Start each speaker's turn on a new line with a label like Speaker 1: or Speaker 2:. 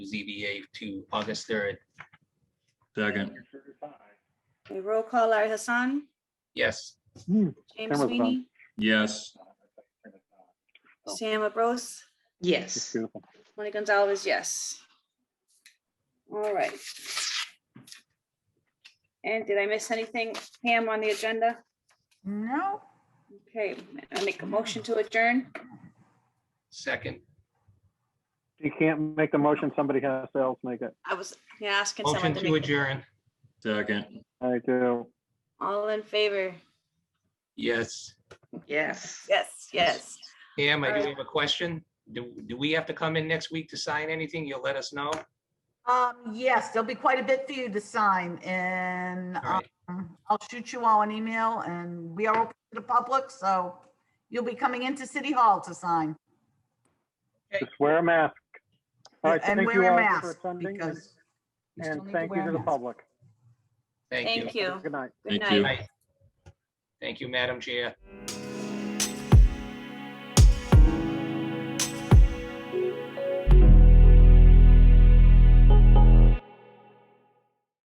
Speaker 1: ZBA to August 3rd.
Speaker 2: Second,
Speaker 3: Okay, Roll call, Larry Hassan,
Speaker 1: Yes,
Speaker 3: James
Speaker 4: Cameras on.
Speaker 3: Sweeney,
Speaker 2: yes,
Speaker 4: Oh.
Speaker 3: Sam Abros,
Speaker 5: Yes.
Speaker 4: Beautiful.
Speaker 3: Tony Gonzalez, yes. All right. And did I miss anything, Pam, on the agenda?
Speaker 5: No.
Speaker 3: Okay, I make a motion to adjourn.
Speaker 1: second.
Speaker 4: You can't make the motion, somebody has to else make it.
Speaker 3: I was yeah, asking someone
Speaker 1: Motion
Speaker 3: to
Speaker 1: to
Speaker 3: make,
Speaker 1: adjourn.
Speaker 2: second,
Speaker 4: I do.
Speaker 3: all in favor?
Speaker 1: Yes.
Speaker 5: Yes.
Speaker 3: Yes, yes.
Speaker 1: Pam, I do
Speaker 3: Alright.
Speaker 1: have a question. Do, do we have to come in next week to sign anything? You'll let us know?
Speaker 6: Um, yes, there'll be quite a bit for you to sign and
Speaker 1: All right.
Speaker 6: um, I'll shoot you all an email and we are open to the public, so you'll be coming into City Hall to sign.
Speaker 4: Just wear a mask. All right,
Speaker 6: And
Speaker 4: thank
Speaker 6: wear
Speaker 4: you
Speaker 6: a
Speaker 4: all for
Speaker 6: mask
Speaker 4: attending and-
Speaker 6: because you still
Speaker 4: and
Speaker 6: need to
Speaker 4: thank you
Speaker 6: wear
Speaker 4: to
Speaker 6: a
Speaker 4: the
Speaker 6: mask.
Speaker 4: public.
Speaker 1: Thank you.
Speaker 3: Thank you.
Speaker 4: Good night.
Speaker 3: Good
Speaker 2: Thank you.
Speaker 3: night.
Speaker 1: Aye. Thank you, Madam Chair.